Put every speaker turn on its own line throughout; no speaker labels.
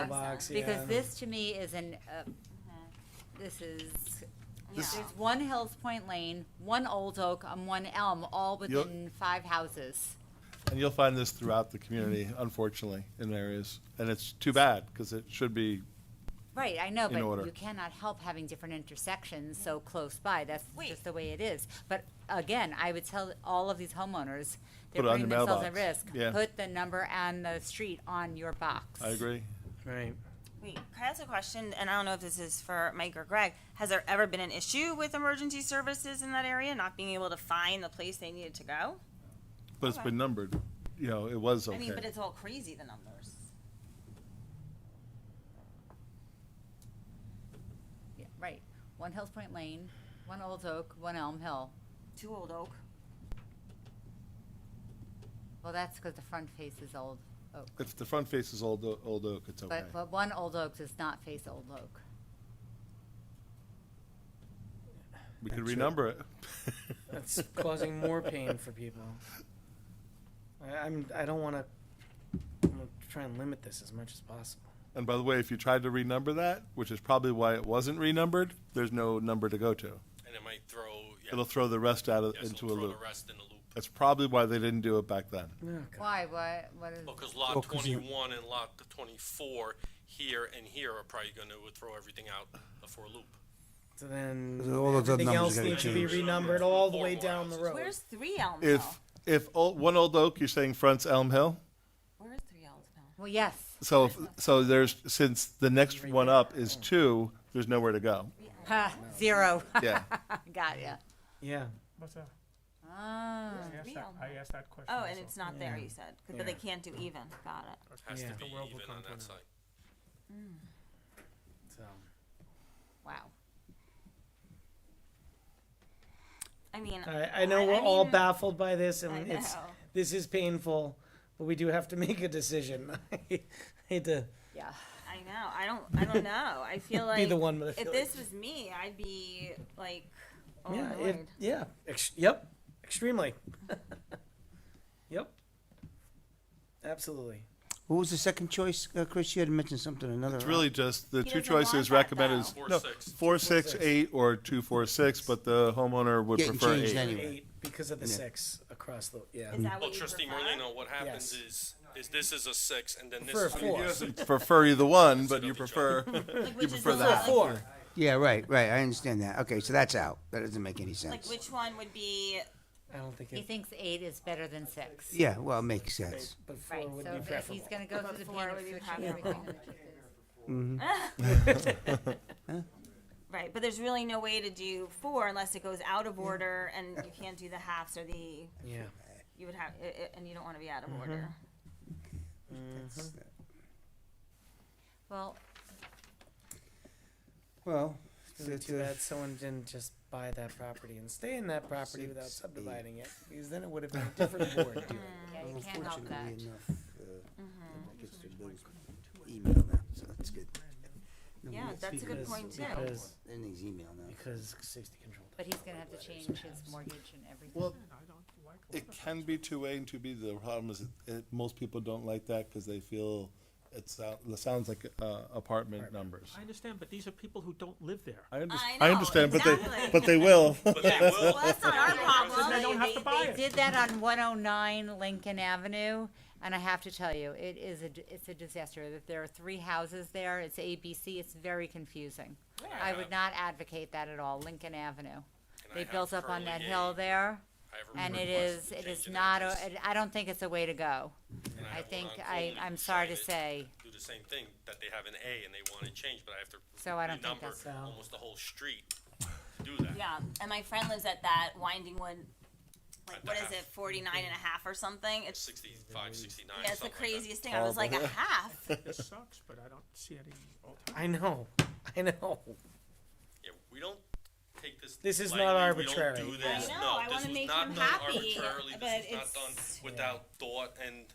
Firebox, yeah.
Because this to me is an, uh, this is,
This-
there's one Hills Point Lane, one Old Oak, and one Elm, all
You'll-
within five houses.
And you'll find this throughout the community, unfortunately, in areas. And it's too bad, because it should be,
Right, I know,
In order.
but you cannot help having different intersections so close by. That's just
Wait.
the way it is. But again, I would tell all of these homeowners, they're
Put it on
putting
your
themselves at
mailbox.
risk.
Yeah.
Put the number on the street on your box.
I agree.
Right.
Wait, can I ask a question? And I don't know if this is for Mike or Greg. Has there ever been an issue with emergency services in that area not being able to find the place they needed to go?
But it's been numbered, you know, it was
I mean, but
okay.
it's all crazy, the numbers.
Yeah, Right. One Hills Point Lane, one Old Oak, one Elm Hill.
Two Old Oak.
Well, that's because the front face is Old Oak.
If the front face is Old, O- Old Oak, it's okay.
But, but one Old Oak does not face Old Oak.
We could
That's right.
renumber it.
That's causing more pain for people. I, I'm. I don't want to. I'm gonna try and limit this as much as possible.
And by the way, if you tried to renumber that, which is probably why it wasn't renumbered, there's no number to go to.
And it might throw, yeah.
It'll throw the rest out of,
yes, it'll
into a
throw
loop.
the rest in a loop.
That's probably why they didn't do it back then.
Oh, God.
Why, what, what is,
Well, because
Oh,
lot
'cause you-
twenty-one and lot twenty-four here and here are probably gonna throw everything out for a loop.
So then
So all of the
everything
numbers
else
gotta
needs to be
change.
renumbered all the
Four
way
more
down the
houses.
road.
Where's Three Elm Hill?
If, if, Old- one Old Oak, you're saying fronts Elm Hill?
Where's Three Elm Hill?
well, yes.
So, if- so there's, since the next one up is two, there's nowhere to go.
Ha, zero.
Yeah.
Got ya.
Yeah.
What's that?
Ah,
I asked that,
real.
I asked that question
Oh,
also.
and it's not there, you said. 'Cause- But they
Yeah.
can't do even. Got it.
Has
Yeah.
to be
The world will
even
come
on
to an end.
that side.
So
wow.
I mean,
I, I know
I-
we're
I
all
mean-
baffled by this,
I
Uh, and it's
know.
this is painful, but we do have to make a decision. I hate to
Yeah.
I know. I don't. I don't know. I feel like
be the one, but I feel
If
like-
this was me, I'd be like, oh,
yeah,
annoyed.
if, yeah, ex- yep, extremely. yep, absolutely.
What was the second choice, uh, Chris? You had mentioned something, another. uh,
It's really just, the
He
two
doesn't want
choices
that,
recommended
though.
is.
Four,
no,
six.
Four, six, eight, or two, four, six, but the homeowner would
Getting
prefer
changed
eight.
anyway.
Eight because of the six across the yeah.
is that
Well,
what you
trustee
prefer?
Morlino, what happens is, is this is a six and then this
For a
is.
four.
a-
Prefer either one, but
Instead
you
of each
prefer,
Like,
you
which is
prefer
the
that.
one?
Four.
Yeah, right, right. I understand that. Okay, so that's out. That doesn't make any
Like
sense.
which one would be?
I don't think
He
it.
thinks eight is better than six.
Yeah, well, it makes sense.
But four
Right,
would
so
be
if- if
preferable.
he's gonna go through the
Before
pain
it
of
would be
switching everything.
preferable.
to the choices.
Right, but there's really no way to do four unless it goes out of order, and you can't do the halves or the.
yeah.
You would have, i- i- and you don't want to be out of
Mm-hmm.
order.
Mm-hmm.
Well,
Well, uh,
It's really too bad someone didn't just buy that property and stay in that property without
Six, eight.
subdividing it, because then it would have been a different board. doing it.
yeah, you can't help that.
uh,
Mm-hmm.
Email now, so that's good.
Yeah, that's a good
Because-
point too.
Because,
Everything's email now.
because safety control.
But he's gonna have to change his mortgage and everything.
Well, it can be two A and two B. The problem is, it- it, most people don't like that because they feel it's, out- it sounds like uh, apartment numbers.
I understand, but these are people who don't live there.
I under-
I
I
know,
understand, but they,
exactly.
but they will.
But they will.
Well, that's not our problem.
They don't have to buy
They
it.
did that on one oh nine Lincoln Avenue, and I have to tell you, it is a, d- it's a disaster. That There are three houses there, it's ABC, it's very confusing. I would not advocate that at all, Lincoln Avenue.
And I
They
have
built up on
curly
that
A.
hill there,
I have a
and it
request
is,
to
it
change
is
an
not, a-
address,
it- I don't think it's a way to go.
and
I
have one
think,
on
I,
Coley
I'm
who
sorry to
decided
say,
Do the same thing, that they have an A and they want to change, but I have to.
So I don't think
renumber
that's-
Almost the whole street to do that.
Yeah, and my friend lives at that Winding Wood. Like
At the
what is
half.
it, 49 and a half or something? It's
Sixty-five, sixty-nine,
yeah, it's the
something like that.
craziest thing. I was like a half.
This sucks, but I don't see any
Um,
alternative.
I know, I know.
Yeah, we don't take this.
This is
lightly.
not
We
arbitrary.
don't do this.
I know,
No,
I
this
wanna
was
make
not
you
done
happy,
arbitrarily.
but
This was not done
it's-
without thought and,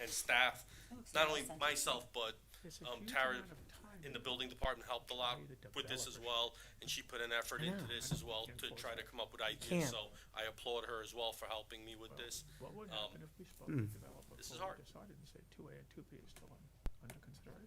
and staff. Not only myself, but,
There's a
um,
huge
Tara
amount of time
in the building department helped a lot
Probably the
with this as
developers.
well. And she put an effort
I
into
know.
this as well
I don't
to
think
try to come up with
can't.
ideas. So I applaud her as well for helping me with this.
What would
Um,
Hmm.
happen if we spoke to developers?
this is
when we
hard.
Decided and said two A and two B is still on